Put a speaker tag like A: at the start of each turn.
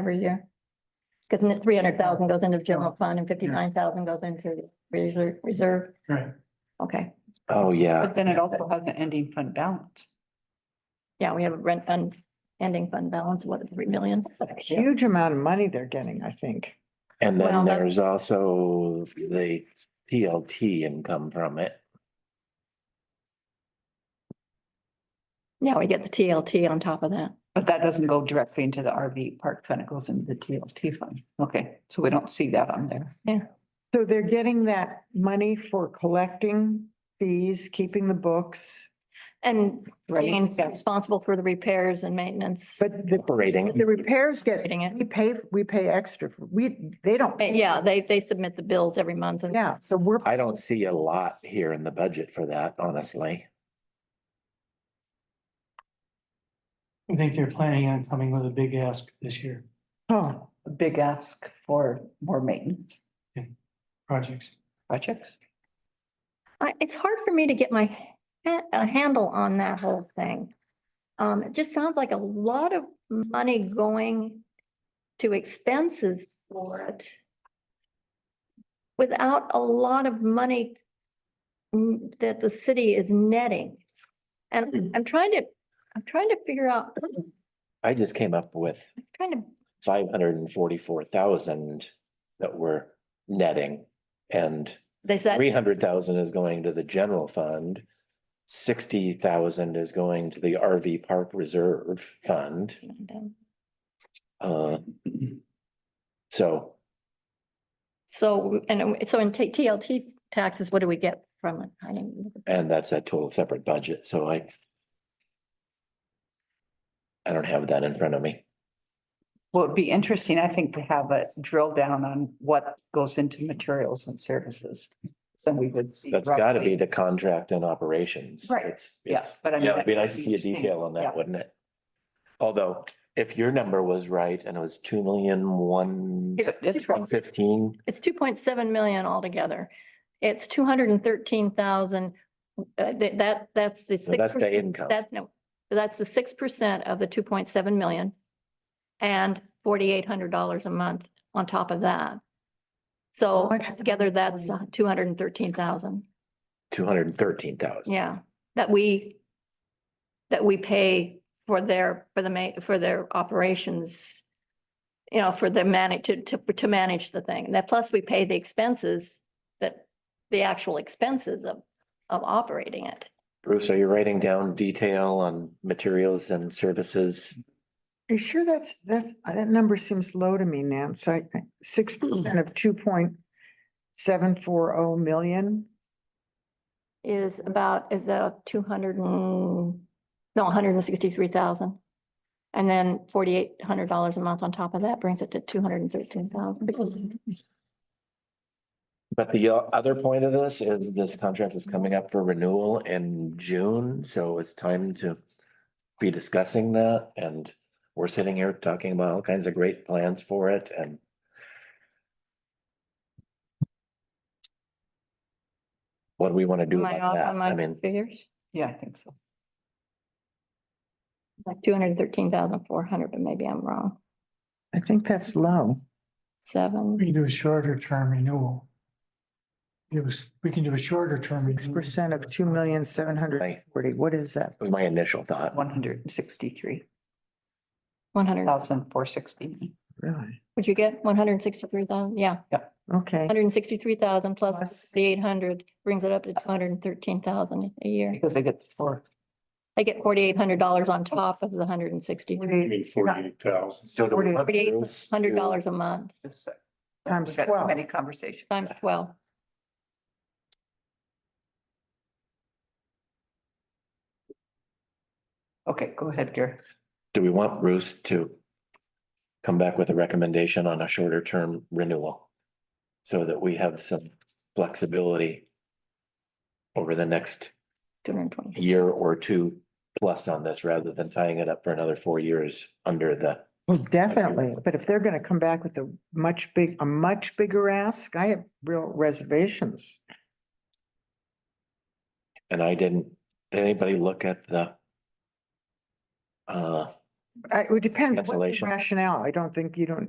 A: every year. Because three hundred thousand goes into the general fund and fifty-nine thousand goes into reserve, reserve.
B: Right.
A: Okay,
C: Oh, yeah.
D: But then it also has an ending fund balance.
A: yeah, we have a rent fund, ending fund balance, what, three million? That's a huge-
E: Huge amount of money they're getting, I think.
C: And
A: Well,
C: then
A: that's-
C: there's also the TLT income from it.
A: Yeah, we get the TLT on top of that.
D: But that doesn't go directly into the RV park fund, it goes into the TLT fund. Okay, so we don't see that on there.
E: So they're getting that money for collecting fees, keeping the books,
A: And being
D: Yeah.
A: responsible for the repairs and maintenance.
E: but the,
C: Operating.
E: the repairs get,
A: Operating it.
E: we pay, we pay extra. for- We, they don't.
A: But
E: pay.
A: Uh, yeah, they, they submit the bills every month and
E: Yeah, so we're,
C: I don't see a lot here in the budget for that, honestly.
B: I think they're planning on coming with a big ask this year,
E: oh,
D: A Big ask for more maintenance
B: projects.
D: projects.
A: I, it's hard for me to get my ha- a handle on that whole thing. Um, it just sounds like a lot of money going to expenses for it. Without a lot of money n- that the city is netting. And I'm trying to, I'm trying to figure out, I'm
C: I just came up with
A: trying to,
C: five hundred and forty-four thousand that we're netting. And
A: they said,
C: three hundred thousand is going to the general fund. Sixty thousand is going to the RV Park Reserve Fund. Uh, So
A: so, and so in T- TLT taxes, what do we get from it? I didn't.
C: And that's a total separate budget, so I. I don't have that in front of me.
D: Well, it'd be interesting, I think, to have a drill down on what goes into materials and services. So we would. see
C: That's gotta be
D: roughly-
C: the contract and operations.
D: Right.
C: It's-
D: Yeah,
C: it's-
D: but I mean.
C: Yeah, it'd be nice to
D: that's
C: see a
D: huge thing.
C: detail on
D: Yeah.
C: that, wouldn't it? Although, if your number was right and it was two million, one
A: It's
D: It's right.
C: fifteen,
A: It's two point seven million altogether. It's two hundred and thirteen thousand. uh, That, that's the.
C: so that's
A: 6%
C: the income.
A: That, no, that's the six percent of the two point seven million. And forty-eight hundred dollars a month on top of that. So
E: much-
A: together, that's two hundred and thirteen thousand.
C: Two hundred and thirteen thousand.
A: Yeah, that we, that we pay for their, for the ma, for their operations. You know, for the manage, to, to, to manage the thing. And that plus we pay the expenses that, the actual expenses of, of operating it.
C: Bruce, are you writing down detail on materials and services?
E: are you sure that's, that's, that number seems low to me, Nance. I, six percent of two point seven four oh million.
A: Is about, is a two hundred and, no, hundred and sixty-three thousand. And then forty-eight hundred dollars a month on top of that brings it to two hundred and thirteen thousand.
C: But the uh, other point of this is this contract is coming up for renewal in June, so it's time to be discussing that and we're sitting here talking about all kinds of great plans for it and what do we want to do
A: Am I
C: about
A: off
C: that?
A: on
C: I
A: my
C: mean,
A: figures?
D: Yeah, I think so.
A: Like two hundred and thirteen thousand four hundred, but maybe I'm wrong.
E: I think that's low.
B: We
A: Seven,
B: can do a shorter term renewal. It was, we can do a shorter term.
E: Six
B: renewal.
E: percent of two million seven hundred forty. What is that?
C: was my initial thought.
D: One hundred and sixty-three
A: one hundred,
D: thousand four sixty.
E: Really?
A: would you get one hundred and sixty-three thousand? Yeah,
E: Okay.
A: hundred and sixty-three thousand plus
E: Plus-
A: the eight hundred brings it up to two hundred and thirteen thousand a year.
D: Because they get four.
A: I get forty-eight hundred dollars on top of the hundred and sixty,
F: I mean, forty-eight thousand.
C: So do we want
A: Forty-
C: Bruce to-
A: hundred dollars a month
D: just so-
E: Times
D: We've got
E: 12.
D: Many conversations.
A: times twelve.
D: Okay, go ahead, Gary.
C: Do we want Bruce to come back with a recommendation on a shorter term renewal? So that we have some flexibility over the next
A: Two hundred and twenty.
C: year or two plus on this, rather than tying it up for another four years under the,
E: Well, definitely, but if they're gonna come back with a much big, a much bigger ask, I have real reservations.
C: and I didn't, did anybody look at the uh,
E: I, it would depend, what's the
C: Cancellation.
E: rationale? I don't think you don't,